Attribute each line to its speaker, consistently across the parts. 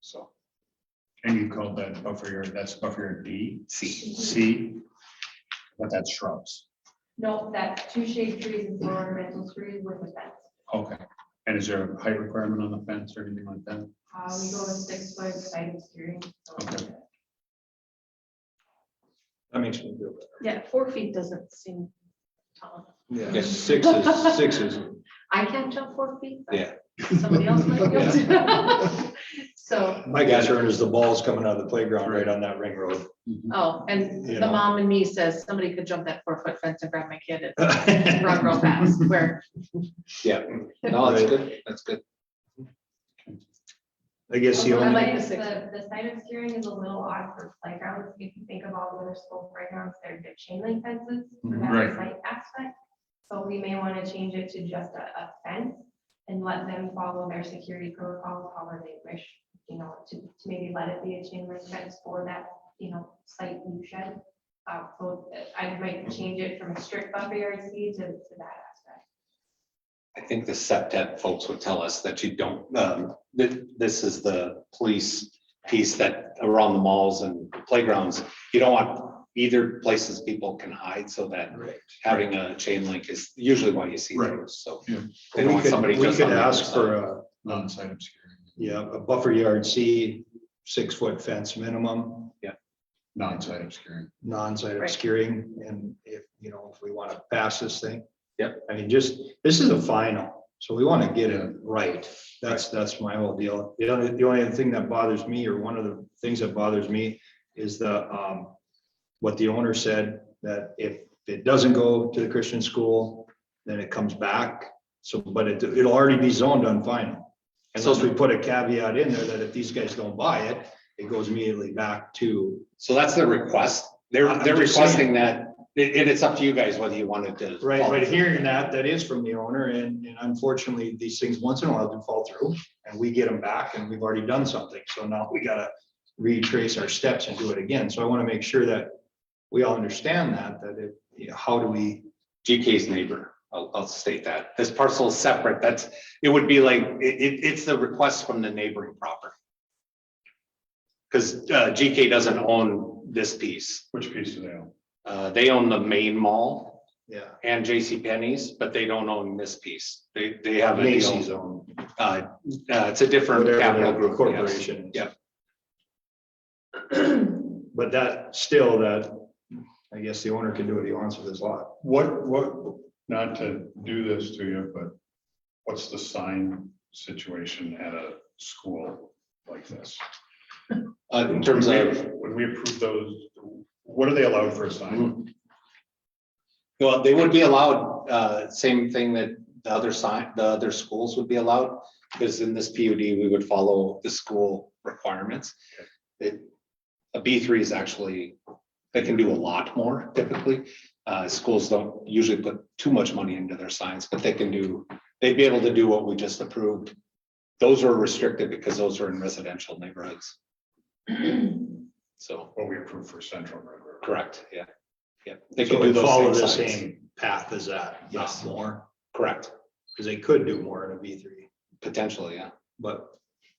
Speaker 1: So,
Speaker 2: And you called that buffer yard, that's buffer yard B,
Speaker 1: see,
Speaker 2: C, but that's shrubs.
Speaker 3: No, that's two shade trees and four ornamental trees with a fence.
Speaker 2: Okay. And is there a height requirement on the fence or anything like that?
Speaker 3: Uh, we go with six foot side steering.
Speaker 2: Okay.
Speaker 1: that makes me feel
Speaker 4: Yeah, four feet doesn't seem tall.
Speaker 1: better.
Speaker 5: Yeah, six is, six is,
Speaker 4: I can't jump four feet. but
Speaker 5: Yeah.
Speaker 4: Somebody else might be able to. So,
Speaker 5: my concern is the ball's coming out of the playground right on that ring road.
Speaker 4: oh, and
Speaker 5: You
Speaker 4: the
Speaker 5: know.
Speaker 4: mom in me says somebody could jump that four foot fence and grab my kid and run real fast where.
Speaker 5: Yeah, no, that's good, that's good.
Speaker 6: I guess the
Speaker 4: Okay.
Speaker 3: I
Speaker 6: only,
Speaker 3: like
Speaker 4: the
Speaker 3: the,
Speaker 4: six.
Speaker 3: the side of steering is a little odd for playgrounds, if you think of all the other school playgrounds, they're they're chain link fences. for
Speaker 6: Mhm.
Speaker 3: that
Speaker 2: Right.
Speaker 3: Site aspect, so we may want to change it to just a, a fence and let them follow their security protocols however they wish. You know, to, to maybe let it be a chain link fence for that, you know, site you shed. Uh, so I might change it from a strict buffer yard C to, to that aspect.
Speaker 5: I think the septet folks would tell us that you don't, um, that this is the police piece that around the malls and playgrounds. You don't want either places people can hide so that having a chain link is usually why you see
Speaker 2: Right.
Speaker 5: those, so.
Speaker 2: Yeah.
Speaker 5: They don't
Speaker 6: we
Speaker 5: want somebody
Speaker 6: could, we
Speaker 5: just
Speaker 6: could
Speaker 5: on the other
Speaker 6: ask
Speaker 5: side.
Speaker 6: for a,
Speaker 2: Non-site obscuring,
Speaker 6: yeah, a buffer yard C, six foot fence minimum,
Speaker 2: non-site obscuring.
Speaker 6: non-site
Speaker 4: Right.
Speaker 6: obscuring, and if, you know, if we want to pass this thing.
Speaker 5: Yep.
Speaker 6: I mean, just, this is a final, so we want to get it right. That's, that's my whole deal. The only, the only other thing that bothers me, or one of the things that bothers me, is the, um, what the owner said, that if it doesn't go to the Christian school, then it comes back. So, but it, it'll already be zoned on final. Unless we put a caveat in there that if these guys don't buy it, it goes immediately back to,
Speaker 5: So that's their request. They're,
Speaker 6: I'm
Speaker 5: they're
Speaker 6: just saying.
Speaker 5: requesting that, it, it- it's up to you guys whether you wanted to.
Speaker 6: right, but hearing that, that is from the owner, and, and unfortunately, these things once in a while do fall through. And we get them back, and we've already done something, so now we gotta retrace our steps and do it again, so I wanna make sure that we all understand that, that it, you know, how do we,
Speaker 5: GK's neighbor, I'll, I'll state that. This parcel is separate. That's, it would be like, it, it, it's the request from the neighboring property. Because, uh, GK doesn't own this piece.
Speaker 2: Which piece do they own?
Speaker 5: Uh, they own the main mall
Speaker 6: yeah,
Speaker 5: and J.C. Penney's, but they don't own this piece. They, they have a
Speaker 6: Macy's
Speaker 5: deal.
Speaker 6: own.
Speaker 5: Uh, uh, it's a different
Speaker 6: whatever
Speaker 5: capital
Speaker 6: that
Speaker 5: group. yes.
Speaker 6: Corporation. is.
Speaker 5: Yeah.
Speaker 6: But that, still, that, I guess the owner can do what he wants with his lot.
Speaker 2: What, what, not to do this to you, but what's the sign situation at a school like this?
Speaker 5: Uh, in terms of.
Speaker 2: When we approve those, what are they allowed for a
Speaker 5: Mm-hmm.
Speaker 2: sign?
Speaker 5: Well, they would be allowed, uh, same thing that the other sign, the other schools would be allowed, because in this PUD, we would follow the school requirements. It, a B three is actually, they can do a lot more typically. Uh, schools don't usually put too much money into their signs, but they can do, they'd be able to do what we just approved. Those are restricted because those are in residential neighborhoods. So,
Speaker 2: What we approve for Central Red River?
Speaker 5: correct, yeah, yeah. They
Speaker 6: So
Speaker 5: can do
Speaker 6: it follow
Speaker 5: those
Speaker 6: the
Speaker 5: same signs,
Speaker 6: same path as that, not
Speaker 5: Yes.
Speaker 6: more,
Speaker 5: correct,
Speaker 6: because they could do more in a B three,
Speaker 5: potentially, yeah.
Speaker 6: but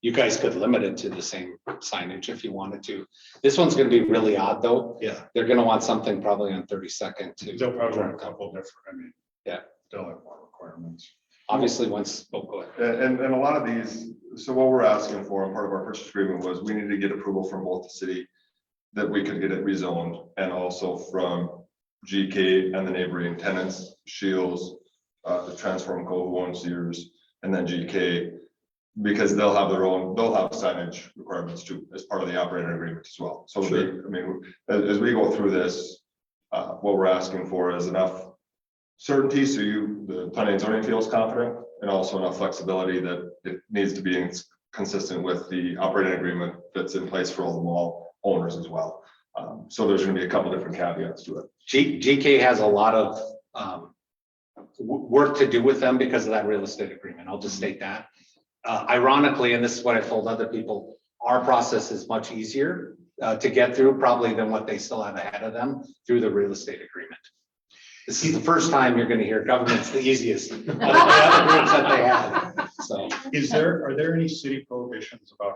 Speaker 5: You guys could limit it to the same signage if you wanted to. This one's gonna be really odd, though.
Speaker 6: yeah.
Speaker 5: They're gonna want something probably on thirty second to,
Speaker 2: They'll probably have a couple different, I mean.
Speaker 5: Yeah.
Speaker 2: They'll have more requirements.
Speaker 5: obviously, once, oh, go ahead.
Speaker 7: And, and- and a lot of these, so what we're asking for, and part of our purchase agreement was, we needed to get approval from both the city that we could get it rezoned, and also from GK and the neighboring tenants, Shields, uh, the Transform Co. who owns Sears, and then GK, because they'll have their own, they'll have signage requirements too, as part of the operator agreement as well. So, they- I mean, as, as we go through this, uh, what we're asking for is enough certainty, so you, the planning and zoning feels confident, and also enough flexibility that it needs to be in- consistent with the operating agreement that's in place for all the mall owners as well. Um, so there's gonna be a couple different caveats to it.
Speaker 5: G, GK has a lot of, um, w- work to do with them because of that real estate agreement. I'll just state that. Uh, ironically, and this is what I've told other people, our process is much easier, uh, to get through probably than what they still have ahead of them through the real estate agreement. This is the first time you're gonna hear government's the easiest of the other groups that they have, so.
Speaker 2: Is there, are there any city prohibitions about